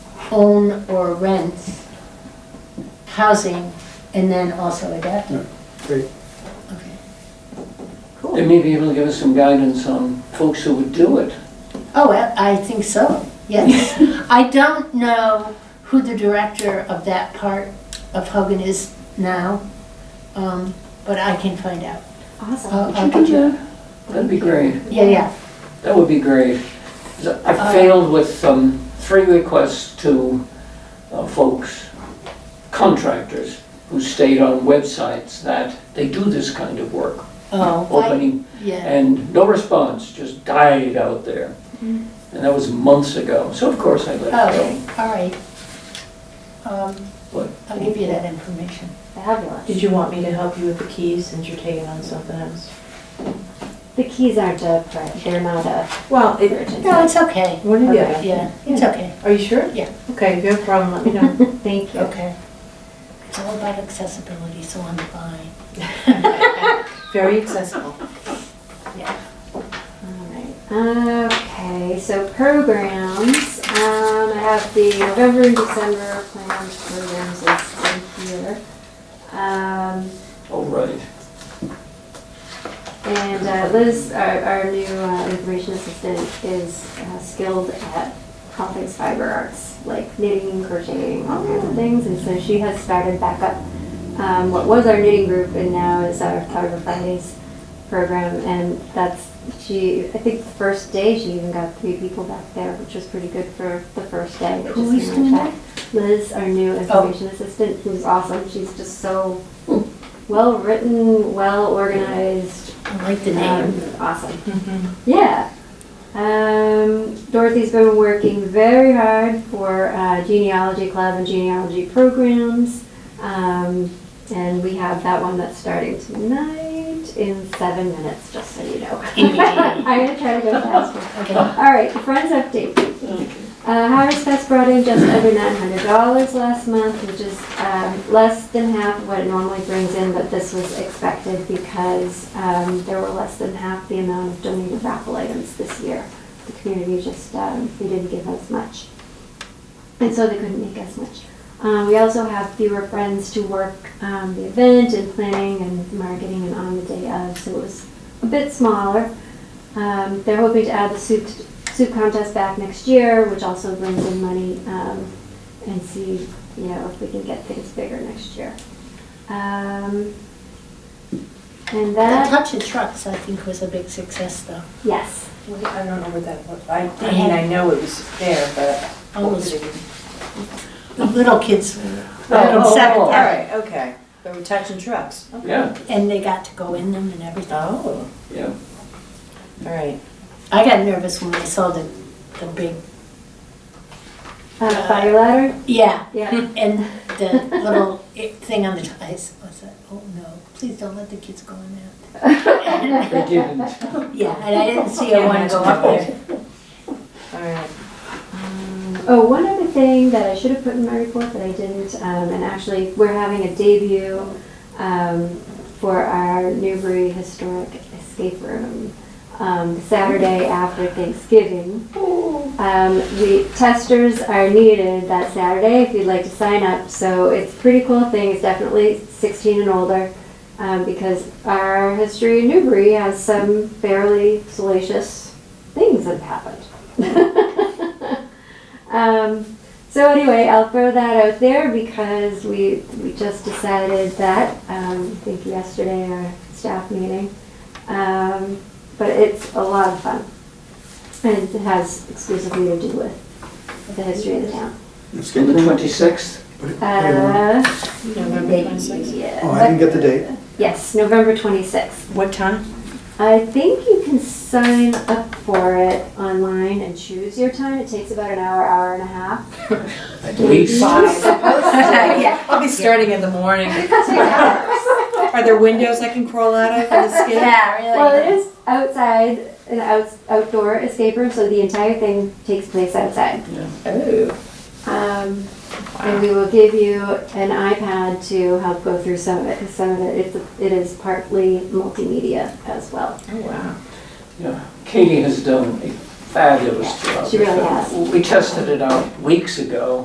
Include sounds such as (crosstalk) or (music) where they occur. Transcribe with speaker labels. Speaker 1: own or rents housing and then also adaptive.
Speaker 2: Great.
Speaker 1: Okay.
Speaker 3: They may be able to give us some guidance on folks who would do it.
Speaker 1: Oh, I I think so,
Speaker 3: (laughs)
Speaker 1: yes. I don't know who the director of that part of Hogan is now, um, but I can find out.
Speaker 4: Awesome.
Speaker 1: I'll- I'll
Speaker 3: Would Oh, you
Speaker 1: get
Speaker 3: do that? That'd be great.
Speaker 1: Yeah, yeah,
Speaker 3: That would be great. 'Cause I
Speaker 1: Uh,
Speaker 3: failed with um, three requests to uh, folks, contractors, who stayed on websites that they do this kind of work,
Speaker 1: oh, why,
Speaker 3: opening,
Speaker 1: yeah,
Speaker 3: and no response, just died out there. And that was months ago, so of course I let it go.
Speaker 1: oh, all right. Um,
Speaker 3: What?
Speaker 1: I'll give you that information.
Speaker 4: Fabulous.
Speaker 5: Did you want me to help you with the keys since you're taking on something else?
Speaker 4: The keys aren't a, pri- they're not a (laughs)
Speaker 5: Well,
Speaker 4: urgent.
Speaker 1: No, it's okay,
Speaker 5: What do you?
Speaker 4: Okay.
Speaker 1: yeah, it's okay,
Speaker 5: Are you sure?
Speaker 1: Yeah.
Speaker 5: Okay, if you have a problem, let me (laughs) know.
Speaker 4: Thank you.
Speaker 1: okay. It's all about accessibility, so I'm fine.
Speaker 5: Very accessible.
Speaker 4: Alright, okay, so programs, um, I have the November and December planned programs listed here. Um,
Speaker 3: Oh, right.
Speaker 4: and uh, Liz, our, our new uh, information assistant is uh, skilled at all things fiber arts, like knitting, crocheting, all kinds of things, and so she has started back up um, what was our knitting group and now is our Fiber Fridays program, and that's, she, I think the first day, she even got three people back there, which was pretty good for the first day. that
Speaker 1: Who
Speaker 4: just
Speaker 1: is
Speaker 4: came
Speaker 1: doing Oh.
Speaker 4: back. Liz, our new information assistant, who's awesome, she's just so
Speaker 1: Hmm.
Speaker 4: well-written, well-organized,
Speaker 1: I like the name.
Speaker 4: um, awesome.
Speaker 5: Mm-hmm.
Speaker 4: Yeah. Um, Dorothy's been working very hard for uh, genealogy club and genealogy programs. Um, and we have that one that's starting tonight in seven minutes, just so you know. (laughs) I'm going to try to go faster.
Speaker 1: Okay,
Speaker 4: All right, Friends update. Uh, Harvest Fest brought in just over nine hundred dollars last month, which is, um, less than half of what it normally brings in, but this was expected because, um, there were less than half the amount of donated raffle items this year. The community just, um, they didn't give as much. And so they couldn't make as much. Uh, we also have fewer friends to work, um, the event and planning and marketing and on the day of, so it was a bit smaller. Um, they're hoping to add the soup, soup contest back next year, which also brings in money, um, and see, you know, if we can get things bigger next year. Um, and
Speaker 1: the
Speaker 4: that,
Speaker 1: touch of trucks, I think, was a big success, though.
Speaker 4: yes,
Speaker 5: Wait, I don't know what that was. I, I mean, I know it was there, but.
Speaker 1: I was The little kids were
Speaker 3: Oh,
Speaker 1: in
Speaker 3: oh,
Speaker 1: seventh
Speaker 3: oh,
Speaker 5: All
Speaker 1: heaven,
Speaker 5: right, okay. But we're touching trucks. Okay.
Speaker 3: Yeah,
Speaker 1: and they got to go in them and everything.
Speaker 5: Oh,
Speaker 3: yeah.
Speaker 5: all right.
Speaker 1: I got nervous when I saw the, the big,
Speaker 4: uh, fire ladder,
Speaker 1: yeah,
Speaker 4: yeah,
Speaker 1: and the little i- thing on the ties. I was like, oh no, please don't let the kids go in there.
Speaker 3: (laughs) They didn't.
Speaker 1: Yeah, and I didn't see a one go up there.
Speaker 5: All right.
Speaker 4: Oh, one other thing that I should have put in my report that I didn't, um, and actually, we're having a debut, um, for our Newbury Historic Escape Room, um, Saturday after Thanksgiving. Um, the testers are needed that Saturday if you'd like to sign up, so it's a pretty cool thing, it's definitely sixteen and older, um, because our history in Newbury has some fairly salacious things that have happened. (laughs) Um, so anyway, I'll throw that out there because we, we just decided that, um, I think yesterday our staff meeting. Um, but it's a lot of fun. And it has exclusively to do with the history of the town.
Speaker 2: Let's
Speaker 3: On
Speaker 2: get
Speaker 3: the
Speaker 2: the-
Speaker 3: 26th,
Speaker 4: Uh,
Speaker 5: November twenty-sixth.
Speaker 4: yeah.
Speaker 2: Oh, I didn't get the date.
Speaker 4: Yes, November twenty-sixth.
Speaker 5: What time? (laughs)
Speaker 4: I think you can sign up for it online and choose your time. It takes about an hour, hour and a half.
Speaker 3: at least.
Speaker 1: (laughs)
Speaker 5: (laughs) I'll be starting in the morning. (laughs) Are there windows I can crawl out of for the skid?
Speaker 4: Well, it is outside, an outs outdoor escape room, so the entire thing takes place outside.
Speaker 5: Oh,
Speaker 4: Um, and we will give you an iPad to help go through some of it, 'cause some of it, it's- it is partly multimedia as well.
Speaker 5: oh, wow.
Speaker 3: Yeah, Katie has done a fabulous job.
Speaker 4: She really has.
Speaker 3: We tested it out weeks ago,